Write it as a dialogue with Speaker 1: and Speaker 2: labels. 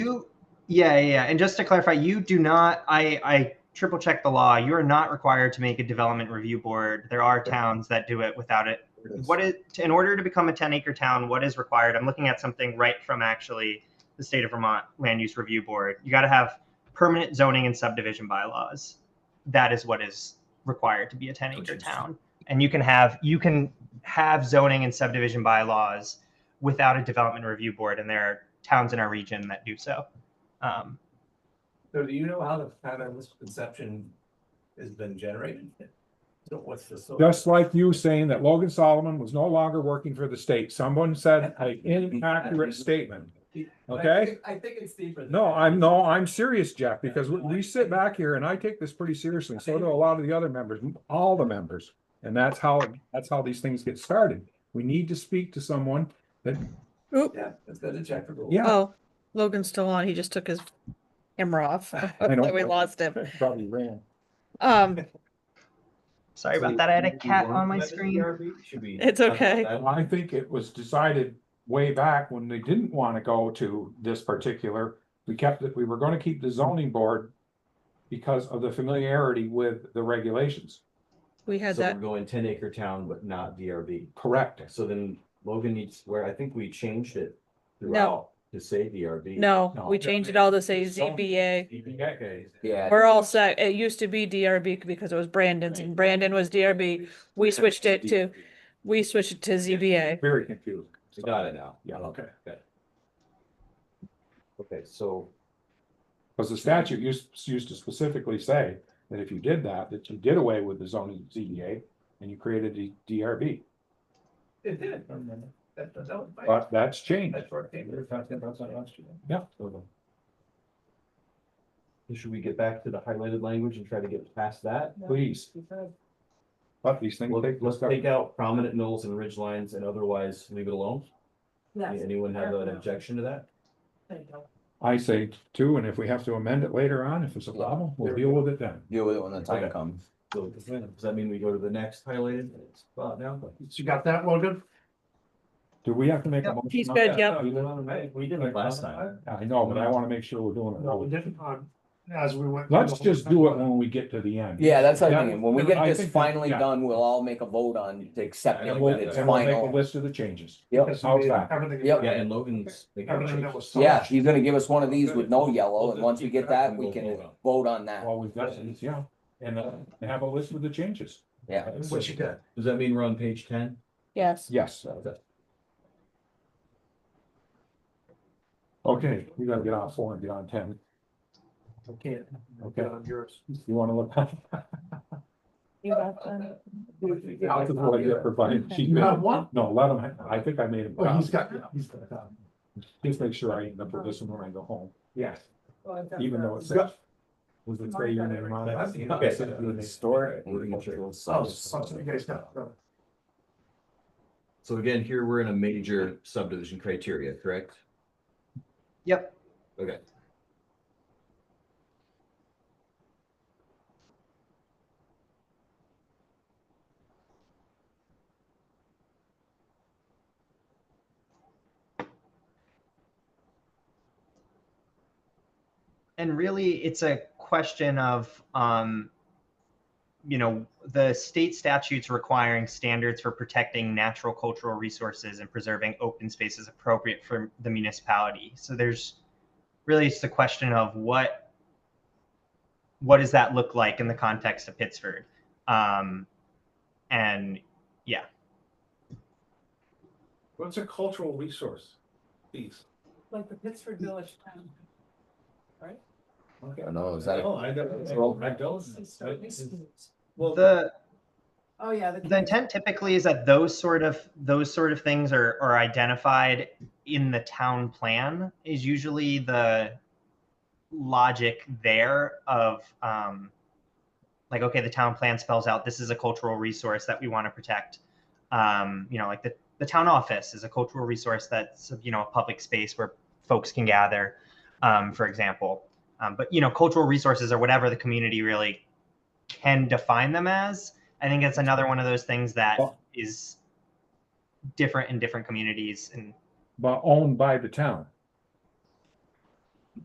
Speaker 1: you, yeah, yeah, yeah. And just to clarify, you do not. I I triple check the law. You are not required to make a development review board. There are towns that do it without it. What is in order to become a 10 acre town? What is required? I'm looking at something right from actually the state of Vermont Land Use Review Board. You got to have permanent zoning and subdivision bylaws. That is what is required to be a 10
Speaker 2: Oh,
Speaker 1: acre
Speaker 2: geez.
Speaker 1: town. And you can have you can have zoning and subdivision bylaws without a development review board, and there are towns in our region that do so. Um,
Speaker 3: So do you know how the, how the misconception has been generated? So what's the source?
Speaker 4: Just like you saying that Logan Solomon was no longer working for the state. Someone said an inaccurate statement. okay.
Speaker 3: I think it's deeper. than
Speaker 4: No,
Speaker 3: that.
Speaker 4: I'm, no, I'm serious, Jeff, because we- we sit back here and I take this pretty seriously. So do a lot of the other members, all the members. And that's how, that's how these things get started. We need to speak to someone.
Speaker 3: Yeah, let's go to check the rules.
Speaker 4: Yeah.
Speaker 5: Oh, Logan's still on. He just took his camera off.
Speaker 4: I know.
Speaker 5: We lost him.
Speaker 4: Probably ran.
Speaker 5: Um,
Speaker 1: sorry about that. I had a cat on my screen.
Speaker 2: Should be.
Speaker 5: it's okay.
Speaker 4: And I think it was decided way back when they didn't want to go to this particular, we kept it, we were going to keep the zoning board because of the familiarity with the regulations,
Speaker 5: We had
Speaker 2: So we're
Speaker 5: that.
Speaker 2: going ten acre town, but not DRB.
Speaker 4: correct?
Speaker 2: So then Logan needs, where I think we changed it throughout to say DRB.
Speaker 5: No,
Speaker 4: No.
Speaker 5: we changed it all to say
Speaker 4: Zoning.
Speaker 5: ZBA.
Speaker 2: Okay.
Speaker 6: Yeah.
Speaker 5: We're all set. It used to be DRB because it was Brandon's and Brandon was DRB. We switched it to, we switched it to ZBA.
Speaker 4: Very confused.
Speaker 2: We Got it now. Oh,
Speaker 4: Yeah, okay.
Speaker 2: Good. Okay, so
Speaker 4: Because the statute used, used to specifically say that if you did that, that you did away with the zoning ZBA and you created the DRB,
Speaker 3: It did. That, that was my.
Speaker 4: but that's changed.
Speaker 3: That's where it came. We were talking about that last year.
Speaker 2: So Should we get back to the highlighted language and try to get past that?
Speaker 4: Please. But these things.
Speaker 2: Well,
Speaker 4: take-
Speaker 2: Let's take out prominent knolls and ridge lines and otherwise leave it alone. Anyone have an objection to that?
Speaker 4: I say two, and if we have to amend it later on, if it's a problem, we'll deal with it then.
Speaker 6: Deal with it when the time
Speaker 2: Okay.
Speaker 6: comes.
Speaker 2: So does that mean we go to the next highlighted spot now?
Speaker 3: You got that, Logan?
Speaker 4: Do we have to make a
Speaker 1: Yep,
Speaker 4: motion?
Speaker 5: he's
Speaker 4: on
Speaker 5: good,
Speaker 4: that?
Speaker 5: yep.
Speaker 4: We didn't-
Speaker 2: We did it last time.
Speaker 4: I know, but I wanna make sure we're doing it.
Speaker 3: No, we
Speaker 4: right.
Speaker 3: didn't, um, as we went.
Speaker 4: Let's just do it when we get to the end.
Speaker 6: Yeah, that's what I'm
Speaker 4: Yeah.
Speaker 6: thinking. When we
Speaker 4: I
Speaker 6: get this
Speaker 4: think that-
Speaker 6: finally
Speaker 4: yeah.
Speaker 6: done, we'll all make a vote on to accept it
Speaker 2: And
Speaker 6: with
Speaker 2: we'll-
Speaker 6: its
Speaker 4: And we'll make a
Speaker 6: final.
Speaker 4: list of the changes.
Speaker 6: Yep,
Speaker 3: Because we-
Speaker 4: Outside.
Speaker 3: Everything.
Speaker 6: Yep.
Speaker 2: Yeah, and Logan's.
Speaker 3: Everything that was. sourced.
Speaker 6: yeah, he's gonna give us one of these with no yellow, and once we get that, we can vote on that.
Speaker 4: All we've got is, yeah, and uh, have a list of the changes.
Speaker 6: Yeah.
Speaker 3: What you got?
Speaker 2: Does that mean we're on page ten?
Speaker 5: Yes.
Speaker 4: Yes. Okay, we gotta get on four and get on ten.
Speaker 3: I can't.
Speaker 4: Okay.
Speaker 3: Get on yours.
Speaker 4: You wanna look? Out to the way that provided- she-
Speaker 3: You have one?
Speaker 4: No, let them, I think I made him.
Speaker 3: Oh, he's got, he's got. um,
Speaker 4: Just make sure I end up
Speaker 7: Oh.
Speaker 4: with this one when I go home. Yes. Even though it's. Was it say your name on it?
Speaker 3: Okay.
Speaker 4: So, the next-
Speaker 6: Historic.
Speaker 3: Oh, something you guys got. uh,
Speaker 2: So again, here we're in a major subdivision criteria, correct?
Speaker 1: Yep.
Speaker 2: Okay.
Speaker 1: and really it's a question of um, you know the state statutes requiring standards for protecting natural cultural resources and preserving open spaces appropriate for the municipality so there's really it's the question of what what does that look like in the context of pittsford um, and
Speaker 8: What's a cultural resource? These.
Speaker 7: Like the Pittsford Village Plan.
Speaker 6: I don't
Speaker 4: Oh,
Speaker 6: know, is that,
Speaker 8: No, Oh, I don't, I don't. Well,
Speaker 1: the
Speaker 7: Oh, yeah.
Speaker 1: the intent typically is that those sort of those sort of things are are identified in the town plan is usually the logic there of um like okay the town plan spells out this is a cultural resource that we want to protect um you know like the the town office is a cultural resource that's you know a public space where folks can gather um for example um, but you know cultural resources or whatever the community really can define them as I think it's another one of those things that
Speaker 4: Well-
Speaker 1: is different in different communities and
Speaker 4: But owned by the town.